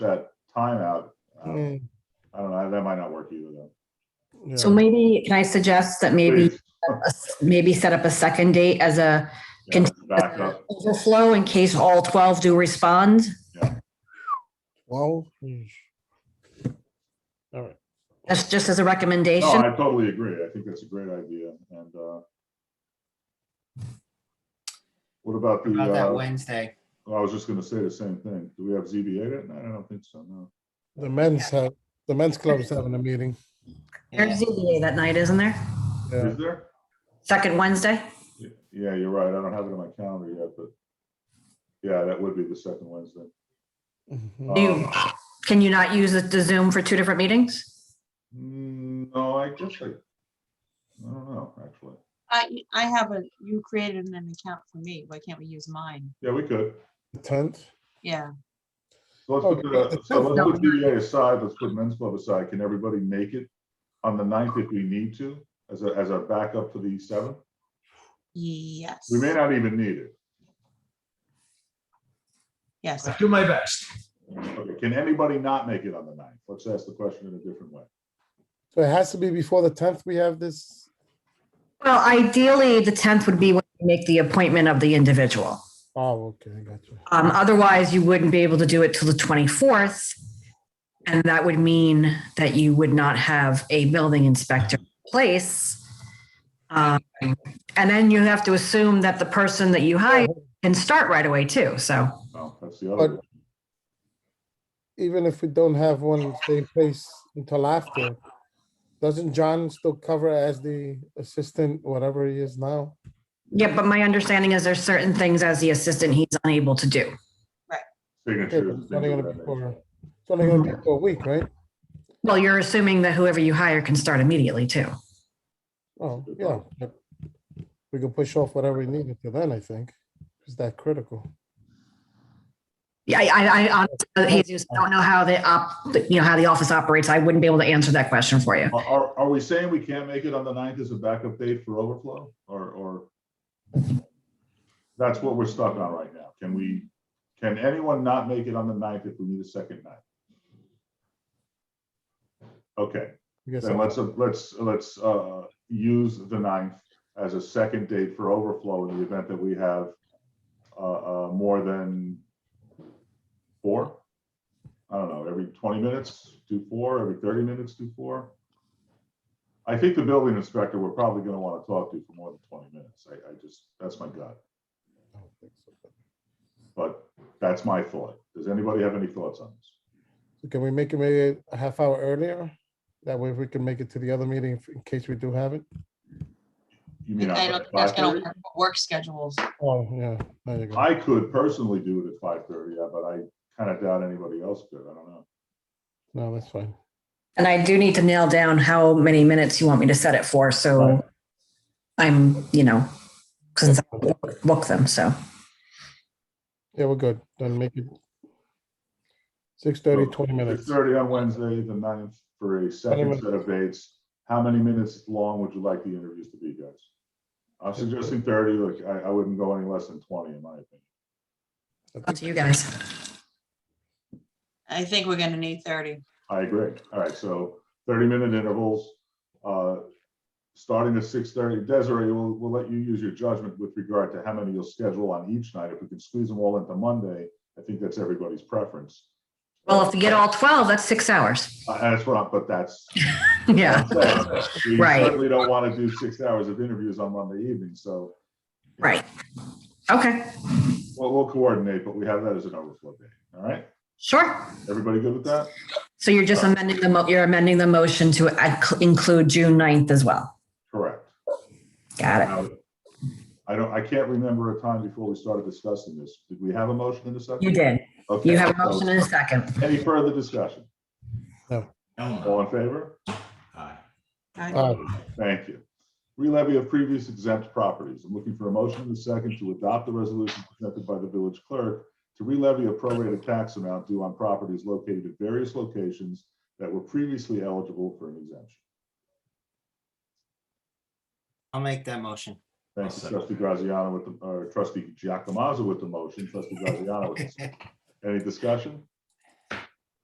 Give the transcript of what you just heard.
that timeout. Um, Mm, I don't know, that might not work either though. So yeah. maybe, can I suggest that maybe, Please. maybe set up a second date as a Yeah, Can- Back up, overflow in case all 12 do respond? Twelve. yeesh. All right. That's just as a no, recommendation. I totally agree, I think that's a great idea, and, uh, what about the, About that uh, Wednesday. I was just gonna say the same thing, do we have ZBA that night? I don't think so, no. The men's have, the men's club's having a meeting. Yeah. There's ZBA that night, isn't there? Yeah. Is there? Second Wednesday? Yeah, you're right, I don't have it on my calendar yet, but, yeah, that would be the second Wednesday. Mhm. Uh, Do you, can you not use the Zoom for two different meetings? Mm, No, I guess I, I don't know, actually, I, I have a, you created an account for me. Why can't we use mine? yeah, we could. The tenth. Yeah. So let's put, Oh, Okay. the- so let's put DDA aside, let's put men's club aside. Can everybody make it on the ninth if we need to as a, as a backup for the seventh? Yes. We may not even need it. Yes. do my best. Okay, can anybody not make it on the ninth? Let's ask the question in a different way. So it has to be before the tenth. We have this. Well, ideally, the 10th would be when you make the appointment of the individual. Oh, okay, I got you. Um, otherwise, you wouldn't be able to do it till the 24th. And that would mean that you would not have a building inspector in place. Um, And then you have to assume that the person that you hire can start right away too, so. No, that's the other. But- one. Even if we don't have one, they place until after. Doesn't John still cover as the assistant, whatever he is now? Yeah, but my understanding is there's certain things as the assistant he's unable to do. Okay, Signatures. but and It's things only gonna of be that nature. for, it's only gonna be for a week, right? Well, you're assuming that whoever you hire can start immediately too. Oh, yeah. but We can push off whatever we need until then, I think. Is that critical? Yeah, I, I, I honestly, Jesus, I don't know how the op, you know, how the office operates. I wouldn't be able to answer that question for you. Are, are, are we saying we can't make it on the ninth as a backup date for overflow or, or? That's what we're stuck on right now. Can we, can anyone not make it on the ninth if we need a second night? Okay, I guess then let's, let's, let's, uh, use the ninth as a second date for overflow in the event that we have, uh, uh, more than four? I don't know, every twenty minutes, do four, every thirty minutes, do four. I think the building inspector, we're probably gonna wanna talk to for more than twenty minutes. I, I just, that's my gut, I don't think so. but that's my thought. Does anybody have any thoughts on this? So Can we make it maybe a half hour earlier? That way we can make it to the other meeting if- in case we do have it. You mean, I on don't, that's gonna 5:30? work- work schedules. Oh, yeah. there you go. I could personally do it at five thirty, but I kinda doubt anybody else could. I don't know. No, that's fine. And I do need to nail down how many minutes you want me to set it for, Right. so I'm, you know, since I book- book them, so. Yeah, we're good. Then make it 6:30, 20 Six minutes. thirty on Wednesday, the ninth, for a second minutes. set of dates. How many minutes long would you like the interviews to be, guys? I'm suggesting thirty, look, I, I wouldn't go any less than twenty in my opinion. Up to you guys. I think we're gonna need thirty. I agree. All right, so thirty minute intervals, uh, starting at six thirty. Desiree, we'll, we'll let you use your judgment with regard to how many you'll schedule on each night. If we can squeeze them all into Monday, I think that's everybody's preference. Well, if we get all 12, that's six hours. Uh, That's what, I'm- but that's, Yeah, We Right. certainly don't want to do six hours of interviews on Monday evening, so right. Okay, we'll, we'll coordinate, but we have that as an overflow day, all right? sure. Everybody good with that? So you're just amending the, mo- you're amending the motion to ac- include June 9th as well. Correct. Got it. Now, I don't, I can't remember a time before we started discussing this. Did we have a motion in a second? You did. Okay, You have a so motion in a second. Any further discussion? No. All in favor? Aye. Uh, Thank you. Relevy of previous exempt properties. I'm looking for a motion in a second to adopt the resolution presented by the village clerk to relevy a prorated tax amount due on properties located at various locations that were previously eligible for an exemption. I'll make that motion. Thank you, I'll second. trustee Graziano with the, or trustee Giacomazzo with the motion, trustee Graziano with the second. Any discussion?